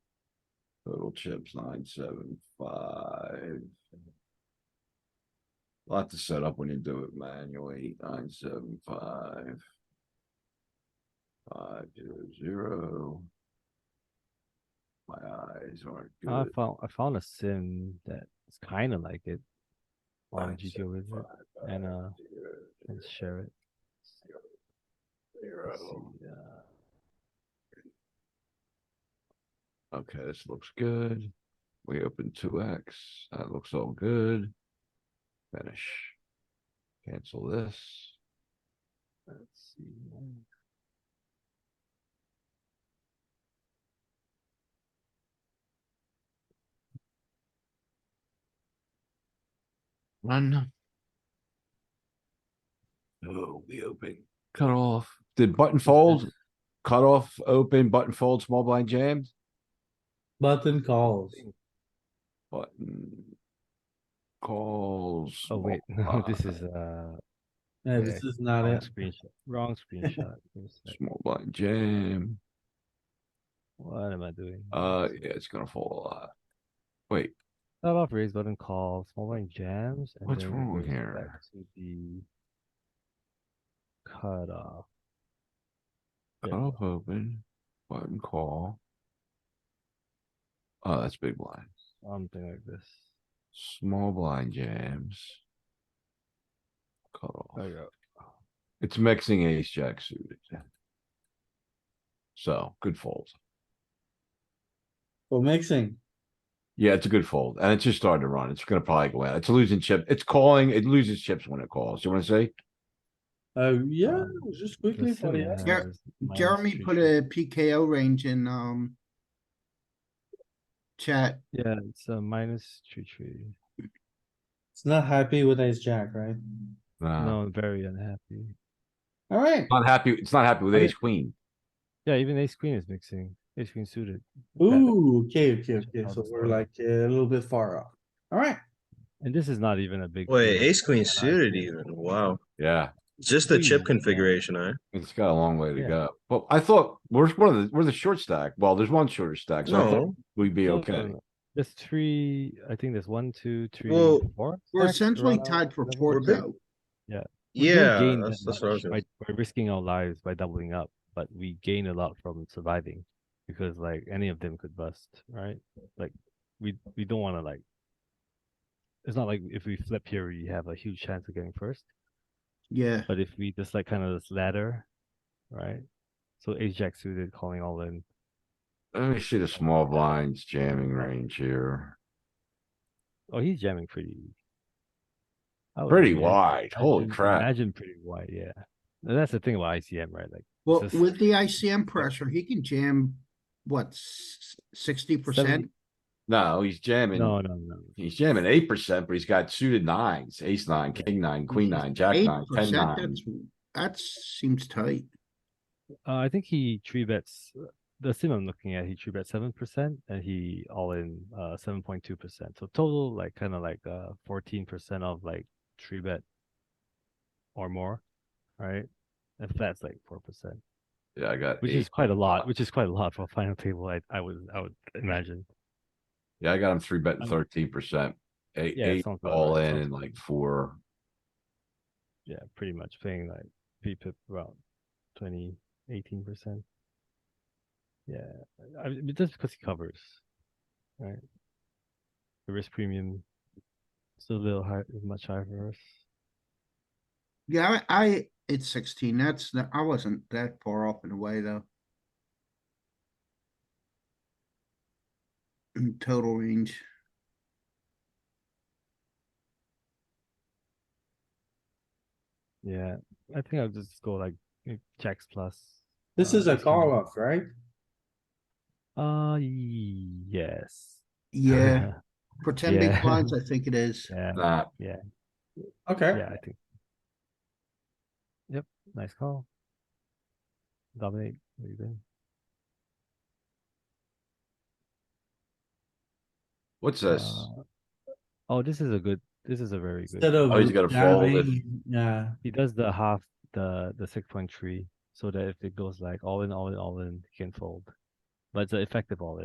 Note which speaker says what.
Speaker 1: Total chips nine, seven, five. Lot to set up when you do it manually, nine, seven, five. Five, zero, zero. My eyes aren't
Speaker 2: I
Speaker 1: good.
Speaker 2: found I found a sim that's kind of like it. On
Speaker 1: Nine,
Speaker 2: GTO
Speaker 1: seven,
Speaker 2: with it
Speaker 1: five,
Speaker 2: and,
Speaker 1: five,
Speaker 2: uh,
Speaker 1: zero,
Speaker 2: and share it.
Speaker 1: zero.
Speaker 2: Let's see, uh,
Speaker 1: uh, Okay, this looks good. We open two X. That looks all good. Finish. Cancel this.
Speaker 2: Let's see. man.
Speaker 1: One. Oh, we open. Cut off. Did button fold? Cut off, open, button fold, small blind jammed?
Speaker 3: Button calls.
Speaker 1: Button. Calls.
Speaker 2: Oh
Speaker 1: small
Speaker 2: wait, no, this
Speaker 1: blind,
Speaker 2: is uh
Speaker 3: Yeah, this
Speaker 2: Okay.
Speaker 3: is not
Speaker 2: wrong
Speaker 3: it.
Speaker 2: screenshot. Wrong screenshot. Give me a sec.
Speaker 1: Small blind jam.
Speaker 2: What am I doing?
Speaker 1: Uh, yeah, it's gonna fold a lot. Wait,
Speaker 2: Start off raise button call, small blind jams. And
Speaker 1: What's
Speaker 2: then it
Speaker 1: wrong
Speaker 2: goes
Speaker 1: here?
Speaker 2: Back to the cutoff.
Speaker 1: cut
Speaker 2: Yeah.
Speaker 1: off open, button call. Oh, that's big blind.
Speaker 2: Something like this.
Speaker 1: Small blind jams. Cut
Speaker 2: There
Speaker 1: off.
Speaker 2: you go.
Speaker 1: It's mixing ace jack suited. So, good fold.
Speaker 3: So Oh, mixing.
Speaker 1: Yeah, it's a good fold, and it's just starting to run. It's gonna probably go out. It's a losing chip. It's calling, it loses chips when it calls. You wanna say?
Speaker 3: Uh, yeah,
Speaker 2: Um, uh,
Speaker 3: just
Speaker 2: The
Speaker 3: quickly for
Speaker 2: sim
Speaker 3: the.
Speaker 2: has
Speaker 4: Jer-
Speaker 2: minus
Speaker 4: Jeremy put
Speaker 2: 350.
Speaker 4: a PKO range in, um. Chat,
Speaker 2: Yeah, it's a minus three three.
Speaker 3: It's not happy with ace jack, right?
Speaker 1: Nah,
Speaker 2: No, I'm very unhappy.
Speaker 3: Alright,
Speaker 1: not happy, it's not happy with
Speaker 2: I mean-
Speaker 1: ace queen.
Speaker 2: Yeah, even ace queen is mixing. Ace queen suited.
Speaker 3: ooh, okay, okay, okay,
Speaker 2: Oh,
Speaker 3: so
Speaker 2: that's
Speaker 3: we're
Speaker 2: fine.
Speaker 3: like uh, a little bit far off. Alright,
Speaker 2: And this is not even a big.
Speaker 5: Wait,
Speaker 2: deal.
Speaker 5: ace queen
Speaker 2: And I
Speaker 5: suited
Speaker 2: think-
Speaker 5: even, wow,
Speaker 1: Yeah,
Speaker 5: just the
Speaker 2: Ooh.
Speaker 5: chip configuration, eh?
Speaker 1: it's got a long way to
Speaker 2: Yeah.
Speaker 1: go. But I thought, we're one of the, we're the short stack. Well, there's one shorter stack, so I thought
Speaker 5: No,
Speaker 1: we'd be
Speaker 2: No, no,
Speaker 1: okay.
Speaker 2: no. There's three, I think there's one, two, three,
Speaker 5: Well,
Speaker 2: four.
Speaker 4: we're
Speaker 2: stacks
Speaker 4: essentially
Speaker 2: around
Speaker 4: tied for
Speaker 2: seven.
Speaker 4: fourth
Speaker 5: big.
Speaker 4: though.
Speaker 2: We don't
Speaker 5: yeah,
Speaker 2: gain
Speaker 5: that's,
Speaker 2: that
Speaker 5: that's what I was
Speaker 2: much
Speaker 5: gonna,
Speaker 2: by- by risking our lives by doubling up, but we gain a lot from surviving because like any of them could bust, right? Like we we don't want to like. It's not like if we flip here, we have a huge chance of getting first.
Speaker 4: Yeah,
Speaker 2: But if we just like kind of this ladder, right? So ace jack suited calling all in.
Speaker 1: Let me see the small blinds jamming range here.
Speaker 2: Oh, he's jamming pretty. Oh, I would
Speaker 1: Pretty
Speaker 2: imagine-
Speaker 1: wide, holy
Speaker 2: imagine-
Speaker 1: crap.
Speaker 2: Imagine pretty wide, yeah. And that's the thing about ICM, right? Like
Speaker 4: well,
Speaker 2: just-
Speaker 4: with the ICM pressure, he can jam, what, sixty percent?
Speaker 2: Seven-
Speaker 1: No, he's
Speaker 2: no,
Speaker 1: jamming,
Speaker 2: no, no.
Speaker 1: he's jamming eight percent, but he's got suited nines, ace nine, king nine, queen nine, jack
Speaker 4: Eight
Speaker 1: nine, ten
Speaker 4: percent,
Speaker 1: nine.
Speaker 4: that's, that seems tight.
Speaker 2: Uh, I think he three bets uh, the sim I'm looking at. He three bet seven percent, and he all in uh seven point two percent. So total like kind of like uh fourteen percent of like three bet or more, right? If that's like four percent,
Speaker 1: Yeah, I got
Speaker 2: which
Speaker 1: eight.
Speaker 2: is quite a
Speaker 1: uh,
Speaker 2: lot, which is quite a lot for a final table. I I would I would imagine.
Speaker 1: Yeah, I got him three betting
Speaker 2: I'm-
Speaker 1: thirteen percent. Eight,
Speaker 2: Yeah,
Speaker 1: eight
Speaker 2: sounds about
Speaker 1: all
Speaker 2: right,
Speaker 1: in
Speaker 2: sounds
Speaker 1: and
Speaker 2: about
Speaker 1: Um, like four.
Speaker 2: Yeah, pretty much paying like P pip around 20, 18 percent. Yeah, I, I- just because he covers, right? The risk premium still a little high, much higher for us.
Speaker 4: Yeah, I, I, it's sixteen, that's, not- I wasn't that far off in a way though. In Total range.
Speaker 2: Yeah, I think I'll just go like eh, jacks plus.
Speaker 3: this
Speaker 2: uh,
Speaker 3: is a
Speaker 2: ace queen.
Speaker 3: call off, right?
Speaker 2: Uh, yes.
Speaker 4: Yeah, pretend big
Speaker 2: Yeah.
Speaker 4: blinds, I think it is.
Speaker 2: yeah,
Speaker 1: Nah,
Speaker 3: Okay,
Speaker 2: yeah, I think. Yep, nice call. Dominate, what do you think?
Speaker 1: what's this?
Speaker 2: Uh, Oh, this is a good, this is a very good.
Speaker 3: instead of.
Speaker 1: Oh, he's gotta fold it.
Speaker 3: jamming, Yeah,
Speaker 2: He does the half, the, the six point three, so that if it goes like all in, all in, all in, he can fold. But it's an effective all in.